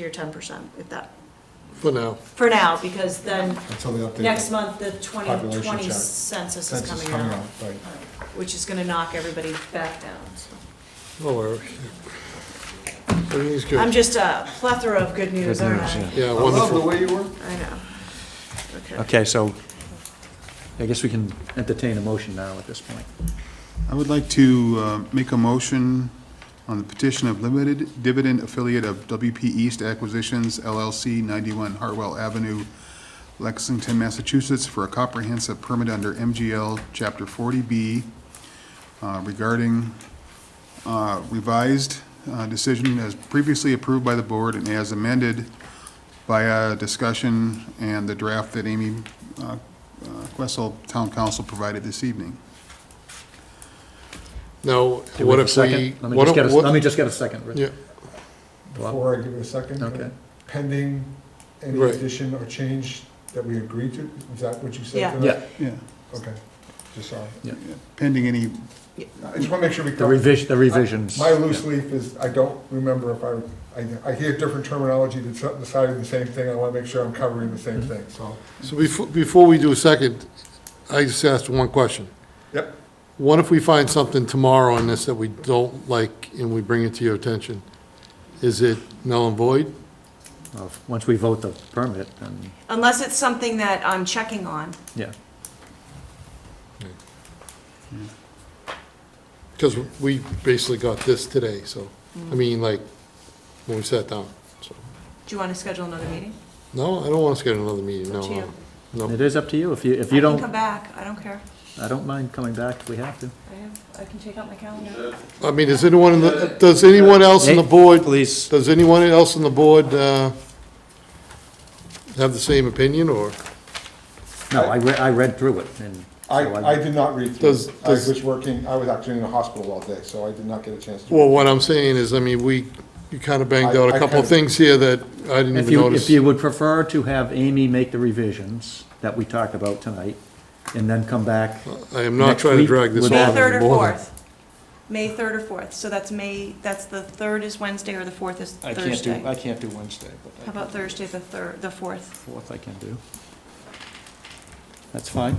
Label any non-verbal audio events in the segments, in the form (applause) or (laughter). your ten percent, if that, For now, for now, because then Until they update. the next month, the twenty Population twenty chart. census is Census coming coming out. out, right. Which is gonna knock everybody back down, so. no worries. Everything's good. I'm just a plethora of good news, aren't I? Yeah, I love the wonderful. way you were. I know. Okay. Okay, so I guess we can entertain a motion now at this point. I would like to uh, make a motion on the petition of limited dividend affiliate of WP East Acquisitions LLC, 91 Hartwell Avenue, Lexington, Massachusetts, for a comprehensive permit under MGL Chapter 40B uh, regarding uh, revised uh, decision as previously approved by the board and as amended by a discussion and the draft that Amy uh, uh, Questle, Town Council, provided this evening. Now, Do what have a if second? we? Let me what just if- get a, what- let me just get a second. Rich. Yeah, Before I give it a second. Okay. Pending any Right. addition or change that we agreed to, is that what you Yeah. said? tonight? Yeah, Yeah. Okay, just sorry. pending any, I just want to make sure we. the revision, the revisions. My loose leaf is, I don't remember if I, I, I hear different terminology that's deciding the same thing, I want to make sure I'm covering the same Mm-hmm. thing, so. so before, before we do a second, I just asked one question. Yep, What if we find something tomorrow on this that we don't like and we bring it to your attention? Is it null and void? of- Once we vote the permit, then, Unless it's something that I'm checking on. yeah. Because we basically got this today, so, I mean, like, when we sat down, so. Do you wanna schedule another meeting? No, I don't want us to get another meeting, It's up no, to no, no. It is up to you. If you, if I you can come don't, back, I don't care. I don't mind coming back if we have to. I have, I can take out my calendar. I mean, is anyone, in the? does anyone else on the Nate, board? Please, Does anyone else on the board uh, have the same opinion, or no, I, re- I read through it and. I, so I did not read through, Does- it. I does- was working, I was actually in the hospital all day, so I did not get a chance to. well, what I'm saying is, I mean, we, you kind of banged I- out I a couple kinda- of things here that I didn't If even you, if notice. you would prefer to have Amy make the revisions that we talked about tonight and then come back, I am not next trying to week drag this would on be- May Well, third or anymore. fourth. May third or fourth, so that's May, that's the third is Wednesday or the fourth is I Thursday. can't do, I can't do Wednesday, but. I How about can do Thursday, the third, the fourth? Fourth I can do. That's fine.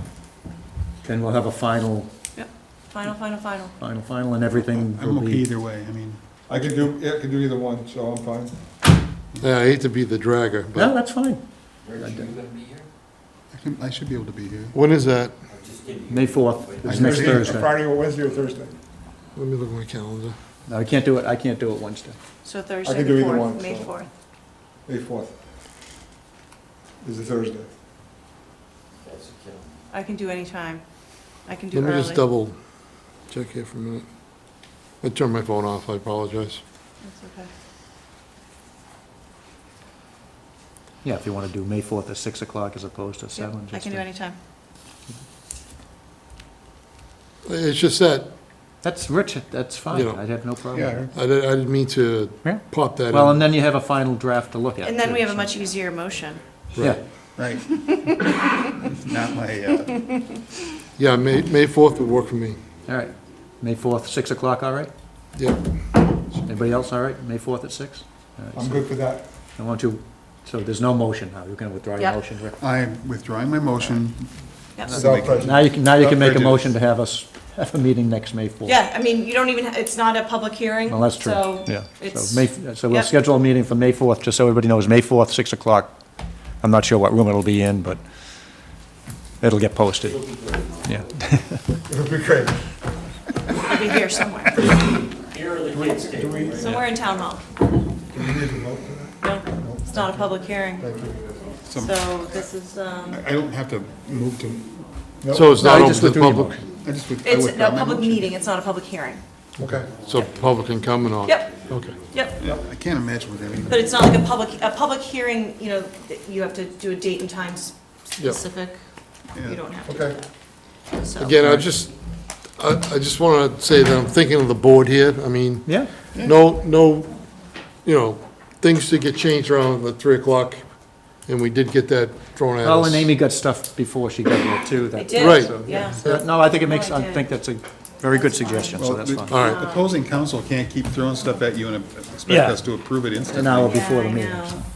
Then we'll have a final, Yep, final, final, final. final, final, and everything I'm will okay be. either way, I mean, I could do, yeah, I could do either one, so I'm fine. Yeah, I hate to be the dragger, No, but that's fine. I can, I should be able to be here. when is that? May fourth is next Thursday, Thursday. Friday or Wednesday or Thursday. Let me look at my calendar. No, I can't do it, I can't do it Wednesday. So Thursday, could do the either fourth, one, May so. fourth. May fourth. Is a Thursday. I can do any time. I can do Let me just early. double check here for a minute. I turned my phone off, I apologize. That's okay. Yeah, if you wanna do May fourth at six o'clock as opposed to Yep, seven. I just can do to- any time. It's just that, That's rich, that's fine, Yeah. I'd have no problem. Yeah. I didn't, I didn't mean to Yeah. pop that in. Well, and then you have a final draft to look at. And then we too, have a so- much easier motion. Yeah, Right. Not my, uh, Yeah, May, May 4th would work for me. all right. May fourth, six o'clock, all right? Yeah, Anybody else, all right? May fourth at six? All right, I'm so- good for that. I want you, so there's no motion now, you can withdraw your Yep. motion. Rick. I'm withdrawing my motion. Yep. Without prejudice. Now you can, now you can make a Prejudice. motion to have us have a meeting next May 4th. Yeah, I mean, you don't even, it's not a public hearing, Well, that's true, so yeah. it's, So May, so we'll yep. schedule a meeting for May 4th, just so everybody knows, May 4th, 6 o'clock. I'm not sure what room it'll be in, but it'll get posted. Yeah, It'd be great. it'll be here (laughs) somewhere, Do we, do somewhere in town hall. we need to vote for that? No, it's not a public hearing. So this is, um, I don't have to move to, so it's not No, I open just to the withdrew my public, I just with- I it's withdraw a my public motion. meeting, it's not a public hearing. Okay. so public can come and all. Yep, Okay. yep. I can't imagine what that means. But it's not like a public, a public hearing, you know, that you have to do a date and time s- Yep. specific. You Yeah. don't have to Okay. do that. So- Again, I just, I, I just want to say that I'm thinking of the board here. I mean, yeah, no, no, you know, things did get changed around the 3 o'clock, and we did get that thrown at us. well, and Amy got stuff before she got here, too. They that- did, Right. yeah. No, I think it makes, No, I I did. think that's a Very good suggestion, so Well, that's the fine. All right. the opposing council can't keep throwing stuff at you and expect Yeah. us to approve it instantly. An hour before the Yeah, I meeting. know.